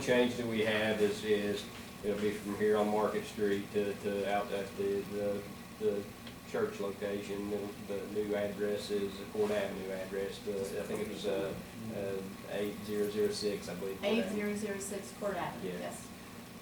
change that we have is, is, it'll be from here on Market Street to, to out at the, the, the church location, the, the new address is the Court Avenue address, the, I think it was, uh, uh, eight zero zero six, I believe. Court Eight Avenue. zero zero six Court Avenue, Yeah. yes.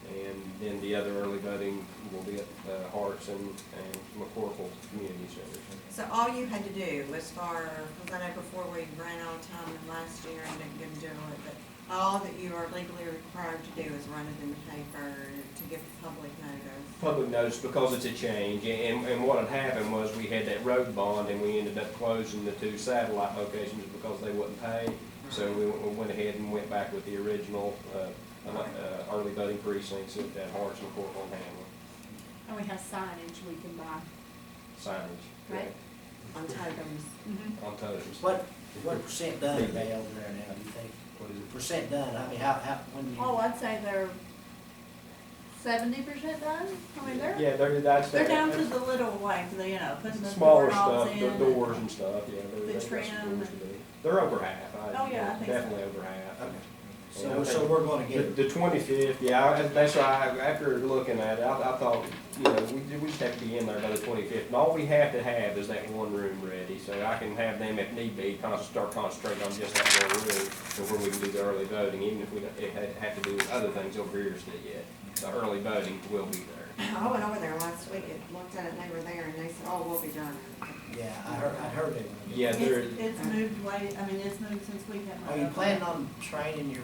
And then the other early voting will be at, uh, Harts and, and McCorkle Community Center. So all you had to do was for, because I know before we ran out of time and last year and didn't get to do it, but all that you are legally required to do is run it in the paper to give the public notice. public notice because it's a change, and, and what had happened was we had that road bond, and we ended up closing the two satellite locations because they wouldn't pay. So we, we went ahead and went back with the original, uh, uh, early voting precincts at that Harts and Corporal and Hamlin And we have signage we can buy. signage. Right. On totems. On totems. What, what percent done are they over there now, do you think? What is it? Percent done, I mean, how, how, when you? Oh, I'd say they're seventy percent done. I mean, they're, Yeah, they're, that's. Oh, They're down to the little like, the, you know, putting the Smaller doorknobs stuff, in. the doors and stuff, yeah. they're- The that's what it's trim. supposed to be. They're over half. I- Oh, yeah, I think so. Definitely over half. Okay. And I So, so think- we're gonna The, get, the twenty-fifth, yeah, I- that's why, I- after looking at it, I, I thought, you know, we, we just have to be in there by the twenty-fifth. And all we have to have is that one room ready, so I can have them if need be, con- start concentrating on just that one room. And where we can do the early voting, even if we don't, it had, have to do other things over here still yet. The early voting will be there. I went over there last week, it looked at it, and they were there, and they said, oh, we'll be done. yeah, I heard, I heard it. Yeah, they're, It's, it's moved way, I mean, it's moved since we had. Are Oh, you planning on training your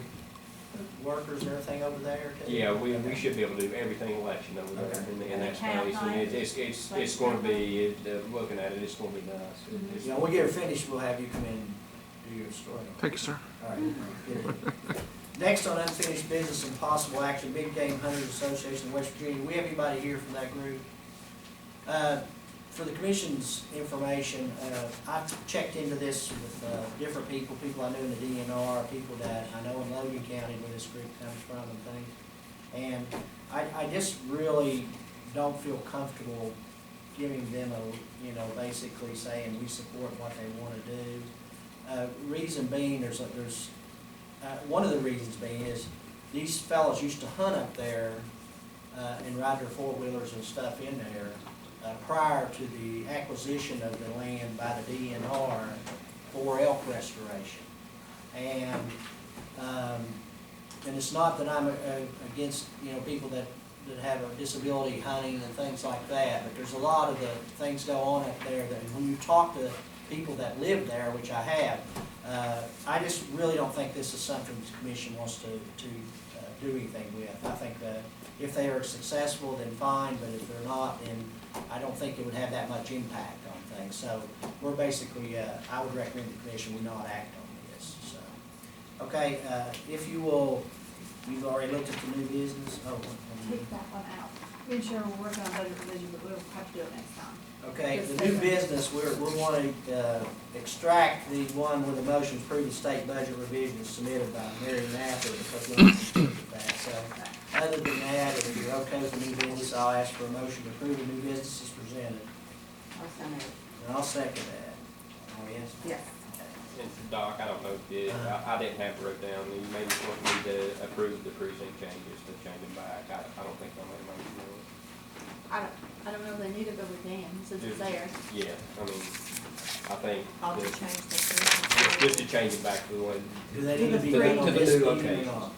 workers and everything over there too? yeah, we, we Okay. should be able to do everything election over there Okay. in, the- in that Half space. And it's, it's, it's, it's gonna be, it- uh, looking at it, it's gonna be nice. It's- You know, when we get her finished, we'll have you come in and do your story. Thank you, sir. All right, good. Next on unfinished business and possible action, Big Game Hunters Association of West Virginia. We have anybody here from that group? Uh, For the commission's information, uh, I've checked into this with uh, different people, people I know in the DNR, people that I know in Logan County where this group comes from and things. And I, I just really don't feel comfortable giving them a, you know, basically saying we support what they want to do. Uh, reason being, there's, a- there's, uh, one of the reasons being is these fellas used to hunt up there, uh, and ride their four-wheelers and stuff in there, uh, prior to the acquisition of the land by the DNR for elk restoration. And, um, and it's not that I'm uh, against, you know, people that, that have a disability hunting and things like that, but there's a lot of the things go on up there that when you talk to people that live there, which I have, uh, I just really don't think this is something the commission wants to, to uh, do anything with. I think that if they are successful, then fine, but if they're not, then I don't think it would have that much impact on things. So we're basically, uh, I would recommend the commission we not act on this, so. Okay, uh, if you will, you've already looked at the new business, oh, um, take that one out. Me and Cheryl were working on budget revision, but we'll have to do it next time. okay, the new business, we're, we wanna, uh, extract the one with the motion to approve the state budget revision submitted by Mary Mather, because we're not sure of that, so. Other than that, if you're okay with the new business, I'll ask for a motion to approve the new business as presented, Also, no. and I'll second that. Oh, yes? yes. And Doc, I don't know if you did, I, I didn't have it wrote down, you maybe want me to approve the precinct changes to change them back, I, I don't think I made a motion on it. I don't, I don't know if they need it, but we can, since it's there. Yeah, I mean, I think, I'll just that- change the. just, just to first. change it back to the way, Do they need to To be the- read to on the this new meeting or locations. not?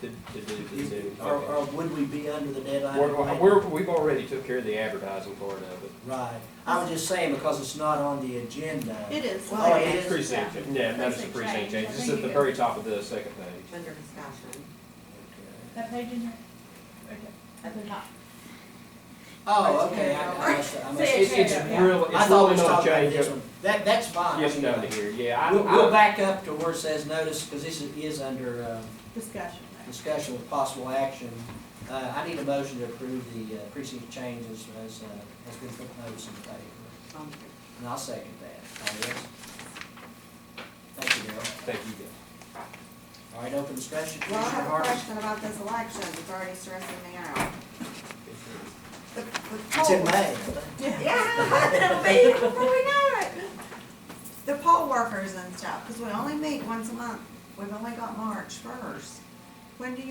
to, to do the city. Or, or would we be under the deadline? We're, we're, we've already took care of the advertising part of it. Right, I was just saying because it's not on the agenda. It is. Well, like- it is. Precinct, yeah, notice the Precinct precinct change, I changes, it's think at the it- very top of the second page. Under discussion. That page in there? At the top. Oh, okay, I I must, I must. Say It's, it's Yeah. real, I it's thought really we not talked about changed, this one, that, that's fine. yes, down to here, yeah, I, We'll, we'll I, back up to where it says notice, because this is, is under, um, Discussion. discussion with possible action. Uh, I need a motion to approve the uh, precinct changes as, uh, as been proposed in the paper, Um, and I'll second that, all yes? Thank you, Darryl. thank you. All right, open discussion, Well, I Commissioner have a Harris. question about this election, it's already stressing me out. The- the It's in polls- May. Yeah, it'll be here before we know it. The poll workers and stuff, because we only meet once a month. We've only got March first. When do you